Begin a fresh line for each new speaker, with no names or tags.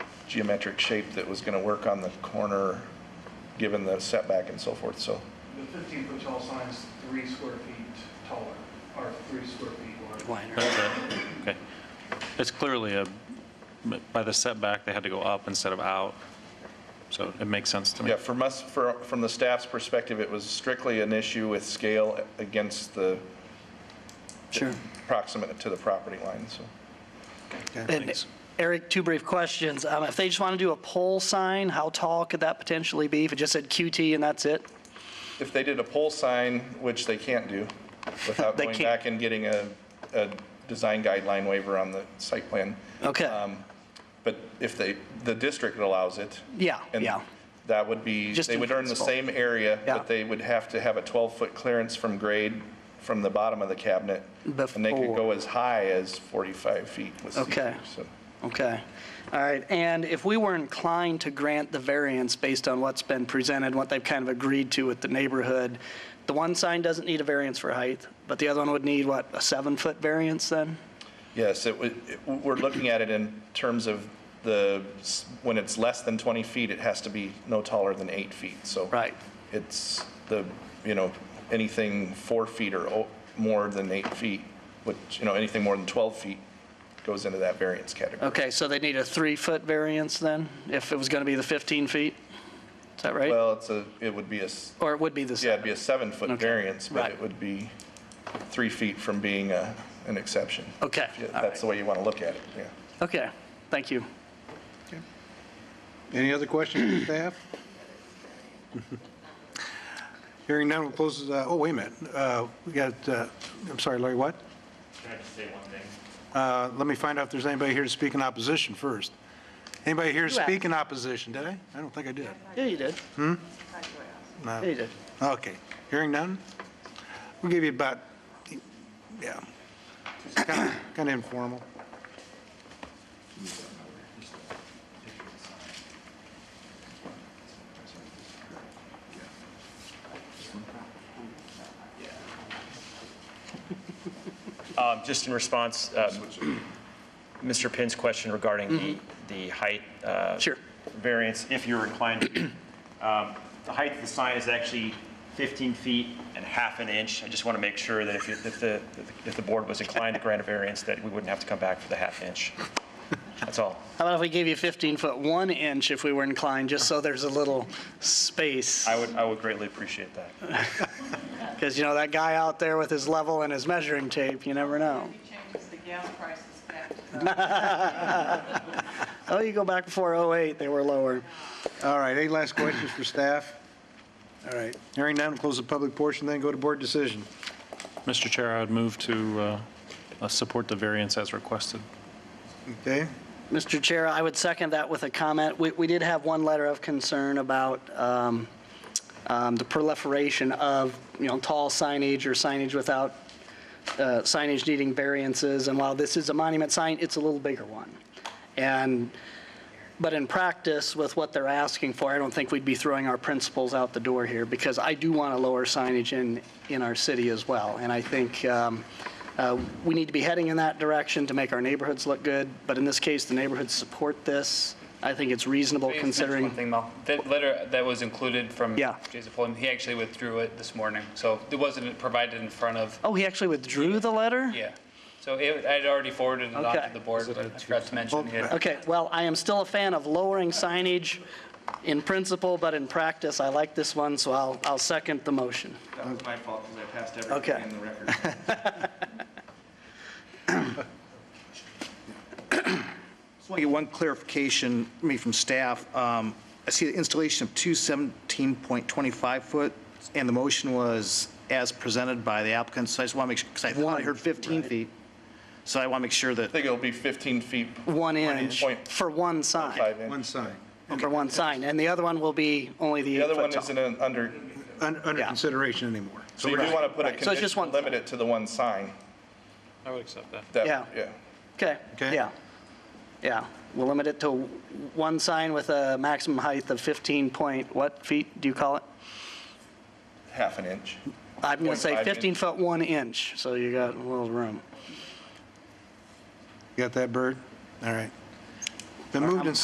geometric shape that was going to work on the corner, given the setback and so forth, so.
The 15-foot tall sign is three square feet taller, or three square feet wider.
Liner.
That's it, okay. It's clearly a, by the setback, they had to go up instead of out, so it makes sense to me.
Yeah, from us, for- from the staff's perspective, it was strictly an issue with scale against the
Sure.
proximate to the property line, so.
Thanks.
And Eric, two brief questions. Um, If they just want to do a pole sign, how tall could that potentially be if it just said QT and that's it?
If they did a pole sign, which they can't do, without
They
going
can't.
back and getting a, a design guideline waiver on the site plan.
Okay.
Um, But if they, the district allows it.
Yeah,
and
yeah.
That would be,
Just
they
in
would earn the same
principle.
area,
Yeah.
but they would have to have a 12-foot clearance from grade, from the bottom of the cabinet. And they could
Before.
go as high as 45 feet with
Okay.
seizures, so.
Okay. All right. And if we were inclined to grant the variance based on what's been presented, what they've kind of agreed to with the neighborhood, the one sign doesn't need a variance for height, but the other one would need, what, a seven-foot variance then?
Yes, it, would- it- we're looking at it in terms of the, s- when it's less than 20 feet, it has to be no taller than eight feet, so.
Right.
It's the, you know, anything four feet or o- more than eight feet, which, you know, anything more than 12 feet goes into that variance category.
Okay, so they need a three-foot variance then, if it was going to be the 15 feet? Is that right?
Well, it's a, it would be a, s-
Or it would be the
yeah,
same?
it'd be a seven-foot
Okay,
variance, but
right.
it would be three feet from being a, an exception.
Okay,
Yeah,
all
That's the way you want to look at it, yeah.
Okay, thank you.
Any other questions from staff? Hearing none, we'll close, uh, oh, wait a minute. Uh, We got, uh, I'm sorry, Larry, what?
Can I just say one thing?
Uh, Let me find out if there's anybody here to speak in opposition first. Anybody here to
You asked.
speak in opposition? Did I? I don't think I did.
Yeah, you did.
No.
Yeah, you did.
Okay. Hearing none? We'll give you about, yeah, kind of informal.
Um, Just in response, um, Mr. Pinn's question regarding the the height uh,
Sure.
variance, if you're inclined, um, the height of the sign is actually 15 feet and half an inch. I just want to make sure that if you- if the, if the board was inclined to grant a variance, that we wouldn't have to come back for the half inch. That's all.
How about if we gave you 15 foot 1 inch if we were inclined, just so there's a little space?
I would, I would greatly appreciate that.
Because, you know, that guy out there with his level and his measuring tape, you never know.
Maybe changes the gas prices back to the
Oh, you go back before '08, they were lower.
All right, any last questions for staff? All right. Hearing none, we'll close the public portion, then go to board decision.
Mr. Chair, I would move to uh, uh, support the variance as requested.
Okay?
Mr. Chair, I would second that with a comment. We, we did have one letter of concern about um, um, the proliferation of, you know, tall signage or signage without uh, signage needing variances. And while this is a monument sign, it's a little bigger one. And, but in practice, with what they're asking for, I don't think we'd be throwing our principles out the door here because I do want to lower signage in, in our city as well. And I think um, uh, we need to be heading in that direction to make our neighborhoods look good. But in this case, the neighborhoods support this. I think it's reasonable
Let me finish
considering.
One thing, Mel. That letter that was included from
Yeah.
Jason Fulham, he actually withdrew it this morning. So it wasn't provided in front of,
Oh, he actually withdrew the letter?
yeah. So it, I'd already forwarded it on
Okay.
to the board, but I forgot to mention it.
Okay, well, I am still a fan of lowering signage in principle, but in practice, I like this one, so I'll, I'll second the motion.
That was my fault because I passed
Okay. in
the record.
Just want to get one clarification, maybe from staff. Um, I see the installation of two 17.25-foot, and the motion was as presented by the applicant, so I just want to make sure, because I thought I heard 15 feet, so I want to make sure that
I think it'll be 15 feet,
One inch
Point
for one sign,
5 inch.
One sign.
for one sign, and the other one will be only the
The other
eight foot
one
tall.
isn't an- under,
Un- Under
Yeah.
consideration anymore.
so you do want to put a
right. So it's just
condition,
one
limit it to the one sign.
I would accept that.
That-
Yeah.
Yeah.
Okay,
Okay.
yeah, yeah. We'll limit it to one sign with a maximum height of 15 point, what feet do you call it?
half an inch.
I'm going to say
0.5 inch.
15 foot 1 inch, so you got a little room.
You got that, Bird? All right. Been moved and